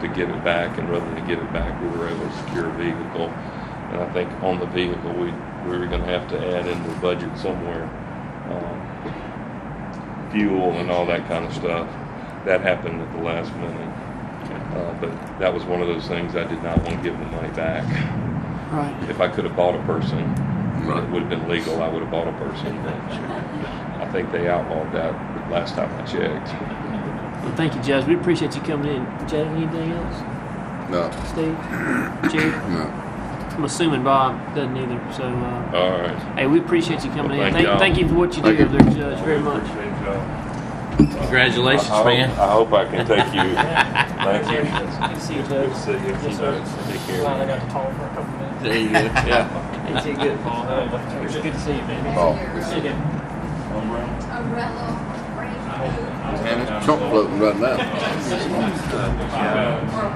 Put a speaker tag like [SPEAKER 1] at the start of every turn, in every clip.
[SPEAKER 1] to give it back, and rather than give it back, we were able to secure a vehicle. And I think on the vehicle, we, we were gonna have to add into the budget somewhere, um, fuel and all that kind of stuff. That happened at the last minute. Uh, but that was one of those things I did not want to give the money back.
[SPEAKER 2] Right.
[SPEAKER 1] If I could have bought a person, it
[SPEAKER 3] Right.
[SPEAKER 1] would have been legal, I would have bought a person, but I think they outlawed that last time I checked.
[SPEAKER 2] Well, thank you, Judge. We appreciate you coming in. Judge, anything else?
[SPEAKER 3] No,
[SPEAKER 2] Steve? Jerry?
[SPEAKER 3] no.
[SPEAKER 2] I'm assuming Bob doesn't either. So, uh,
[SPEAKER 1] All right.
[SPEAKER 2] hey, we appreciate you coming
[SPEAKER 1] Well,
[SPEAKER 2] in.
[SPEAKER 1] thank
[SPEAKER 2] Thank,
[SPEAKER 1] y'all.
[SPEAKER 2] thank you for what you do
[SPEAKER 3] Thank you.
[SPEAKER 2] over there, Judge, very much.
[SPEAKER 4] Congratulations, man.
[SPEAKER 1] I hope I can take you. Thank you.
[SPEAKER 2] Good to see you,
[SPEAKER 1] Good to
[SPEAKER 2] Judge.
[SPEAKER 1] see you.
[SPEAKER 2] Yes, sir.
[SPEAKER 1] Take
[SPEAKER 2] Glad I
[SPEAKER 1] care.
[SPEAKER 2] got to talk for a couple minutes.
[SPEAKER 4] There you go.
[SPEAKER 3] Yeah.
[SPEAKER 2] Hey, you good, Paul. It was good to see you, man.
[SPEAKER 3] Oh,
[SPEAKER 2] See you
[SPEAKER 3] it's-
[SPEAKER 2] then.
[SPEAKER 5] umbrella, raincoat,
[SPEAKER 3] and it's chunk floating right now.
[SPEAKER 5] or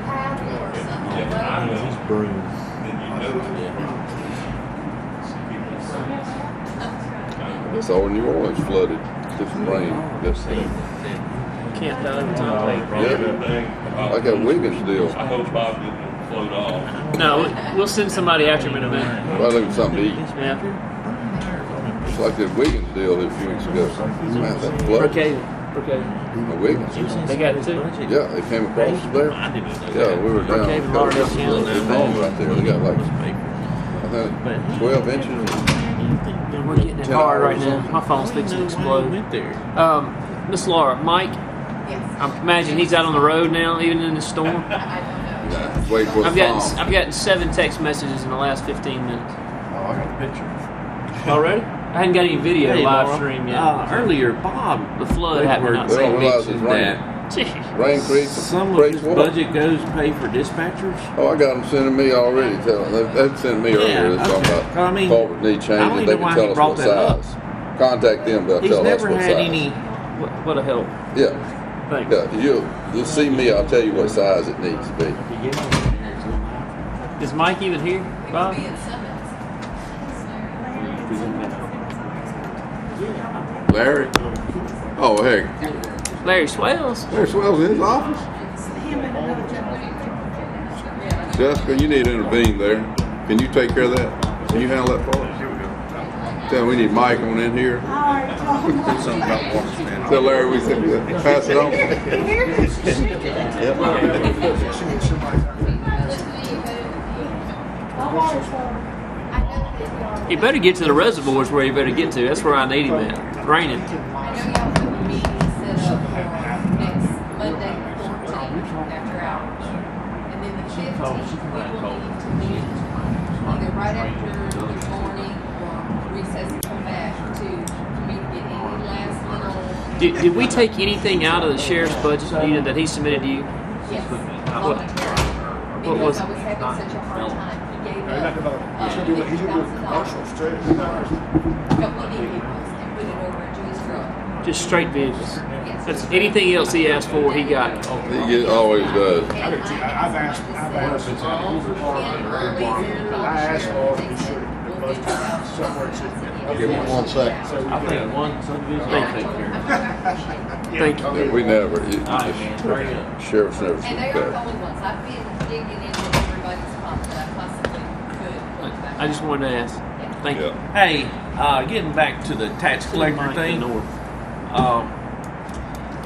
[SPEAKER 5] paddle or something.
[SPEAKER 3] It's all New Orleans flooded. This rain. This thing.
[SPEAKER 2] Can't die every time.
[SPEAKER 3] Yeah. Like that Wiggins deal.
[SPEAKER 1] I hope Bob didn't float off.
[SPEAKER 2] No, we'll send somebody after him in a minute.
[SPEAKER 3] Well, there was something to eat.
[SPEAKER 2] Yeah.
[SPEAKER 3] It's like that Wiggins deal a few weeks ago. Man, that flood.
[SPEAKER 2] Brookhaven. Brookhaven.
[SPEAKER 3] The Wiggins.
[SPEAKER 2] They got it too.
[SPEAKER 3] Yeah, they came across there. Yeah, we were down.
[SPEAKER 2] Brookhaven, Lauderdale County.
[SPEAKER 3] It's long right there. They got like, I think, twelve inches.
[SPEAKER 2] We're getting it hard right now. My phone's fixing to explode.
[SPEAKER 4] there.
[SPEAKER 2] Um, Miss Laura, Mike,
[SPEAKER 5] Yes,
[SPEAKER 2] I imagine he's out on the road now, even in the storm.
[SPEAKER 5] I don't know.
[SPEAKER 3] Nah, Wait for the
[SPEAKER 2] I've gotten
[SPEAKER 3] fall.
[SPEAKER 2] I've gotten seven text messages in the last 15 minutes
[SPEAKER 3] Oh, I got a picture.
[SPEAKER 2] already. Ah, I hadn't got any video live stream yet.
[SPEAKER 4] Uh, earlier, Bob,
[SPEAKER 2] The flood happened
[SPEAKER 3] They
[SPEAKER 2] outside.
[SPEAKER 3] don't realize it's
[SPEAKER 4] mentioned
[SPEAKER 3] raining.
[SPEAKER 4] that
[SPEAKER 2] Jeez.
[SPEAKER 3] Rain creek,
[SPEAKER 4] some of
[SPEAKER 3] creek's
[SPEAKER 4] his
[SPEAKER 3] water.
[SPEAKER 4] budget goes to pay for dispatchers.
[SPEAKER 3] Oh, I got them sending me already. Tell them they, they sent me earlier. It's talking
[SPEAKER 4] okay.
[SPEAKER 3] about
[SPEAKER 4] I mean,
[SPEAKER 3] culvert need
[SPEAKER 4] I don't
[SPEAKER 3] changes.
[SPEAKER 4] even
[SPEAKER 3] They
[SPEAKER 4] know why
[SPEAKER 3] can
[SPEAKER 4] he
[SPEAKER 3] tell us
[SPEAKER 4] brought
[SPEAKER 3] what
[SPEAKER 4] that up.
[SPEAKER 3] size. Contact them. They'll
[SPEAKER 4] He's
[SPEAKER 3] tell us
[SPEAKER 4] never
[SPEAKER 3] what
[SPEAKER 4] had
[SPEAKER 3] size.
[SPEAKER 4] any.
[SPEAKER 2] What, what a help.
[SPEAKER 3] Yeah,
[SPEAKER 2] Thanks.
[SPEAKER 3] yeah. You you'll see me. I'll tell you what size it needs to be.
[SPEAKER 2] Is Mike even here,
[SPEAKER 5] We could
[SPEAKER 2] Bob?
[SPEAKER 5] be at Summit.
[SPEAKER 3] Larry. Oh hey,
[SPEAKER 2] Larry Swales.
[SPEAKER 3] Larry Swell's in his office. Jessica, you need to intervene there. Can you take care of that? Can you handle that for us? Tell him we need Mike on in here. Tell Larry we said pass it on.
[SPEAKER 2] He better get to the reservoirs where he better get to. That's where I need him at. Raining.
[SPEAKER 5] I know y'all have a meeting set up for next Monday, the fourteenth, after hours. And then the fifteenth, we will need to meet either right after the morning or recess and come back to meet get any last little,
[SPEAKER 2] Did, did we take anything out of the sheriff's budget Nina, that he submitted to you?
[SPEAKER 5] yes,
[SPEAKER 2] What-
[SPEAKER 5] voluntary.
[SPEAKER 2] what was-
[SPEAKER 5] Because I was having such a hard time, he gave up fifty thousand dollars. But we need vehicles and put it over at Julie's truck.
[SPEAKER 2] Just straight vehicles.
[SPEAKER 5] Yes.
[SPEAKER 2] That's anything else he asked for, he got.
[SPEAKER 3] He get- always does.
[SPEAKER 5] I've asked, I've asked. I asked all of you, sure, the budget somewhere to.
[SPEAKER 3] Give me one second.
[SPEAKER 4] I think one subdivision will take care
[SPEAKER 2] Thank you.
[SPEAKER 3] We never, it-
[SPEAKER 4] of it.
[SPEAKER 3] the sheriff's never
[SPEAKER 5] And
[SPEAKER 3] seen
[SPEAKER 5] they are the
[SPEAKER 3] that.
[SPEAKER 5] only ones, I've been digging into everybody's pocket that I possibly could.
[SPEAKER 2] I just wanted to ask. Thank you.
[SPEAKER 3] Yeah,
[SPEAKER 4] Hey, uh, getting back to the tax collector
[SPEAKER 2] Mike
[SPEAKER 4] thing,
[SPEAKER 2] North.
[SPEAKER 4] um,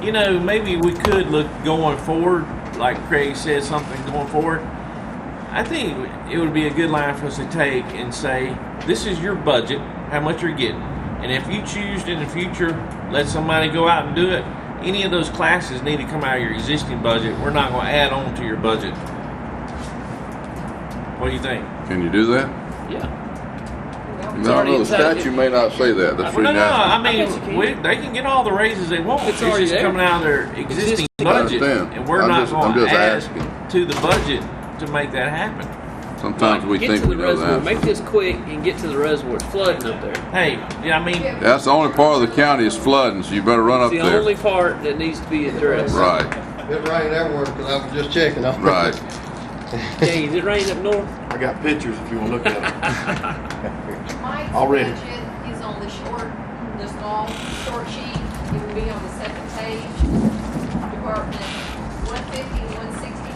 [SPEAKER 4] you know, maybe we could look going forward, like Craig said, something going forward. I think it would be a good line for us to take and say, this is your budget, how much you're getting. And if you choose in the future, let somebody go out and do it. Any of those classes need to come out of your existing budget. We're not going to add on to your budget. What do you think?
[SPEAKER 3] can you do that?
[SPEAKER 2] Yeah. It's
[SPEAKER 3] No,
[SPEAKER 2] already
[SPEAKER 3] no, the
[SPEAKER 2] inside.
[SPEAKER 3] statute may not say that, that's
[SPEAKER 4] Well,
[SPEAKER 3] really
[SPEAKER 4] no, no.
[SPEAKER 3] nasty.
[SPEAKER 4] I mean,
[SPEAKER 2] I bet you
[SPEAKER 4] we,
[SPEAKER 2] can.
[SPEAKER 4] they can get all the raises they want.
[SPEAKER 2] It's
[SPEAKER 4] It's,
[SPEAKER 2] already
[SPEAKER 4] just
[SPEAKER 2] there.
[SPEAKER 4] coming out of their existing
[SPEAKER 2] I
[SPEAKER 4] budget,
[SPEAKER 3] understand.
[SPEAKER 4] and we're
[SPEAKER 3] I'm
[SPEAKER 4] not
[SPEAKER 3] just- I'm
[SPEAKER 4] going to
[SPEAKER 3] just
[SPEAKER 4] add
[SPEAKER 3] asking.
[SPEAKER 4] to the budget to make that happen.
[SPEAKER 3] Sometimes we
[SPEAKER 2] Get
[SPEAKER 3] think
[SPEAKER 2] to
[SPEAKER 3] we
[SPEAKER 2] the
[SPEAKER 3] know
[SPEAKER 2] reservoir.
[SPEAKER 3] that.
[SPEAKER 2] Make this quick and get to the reservoir. It's flooding up there.
[SPEAKER 4] Hey, yeah, I mean,
[SPEAKER 3] That's the only part of the county is flooding, so you better run up
[SPEAKER 2] It's the only
[SPEAKER 3] there.
[SPEAKER 2] part that needs to be addressed.
[SPEAKER 3] Right,
[SPEAKER 6] It rained everywhere because I was just checking.
[SPEAKER 3] right.
[SPEAKER 2] Hey, is it raining up north?
[SPEAKER 7] I got pictures if you want to look at them.
[SPEAKER 5] Mike's
[SPEAKER 7] Already.
[SPEAKER 5] budget is on the short, the small, short sheet, it will be on the second page. Department one fifty, one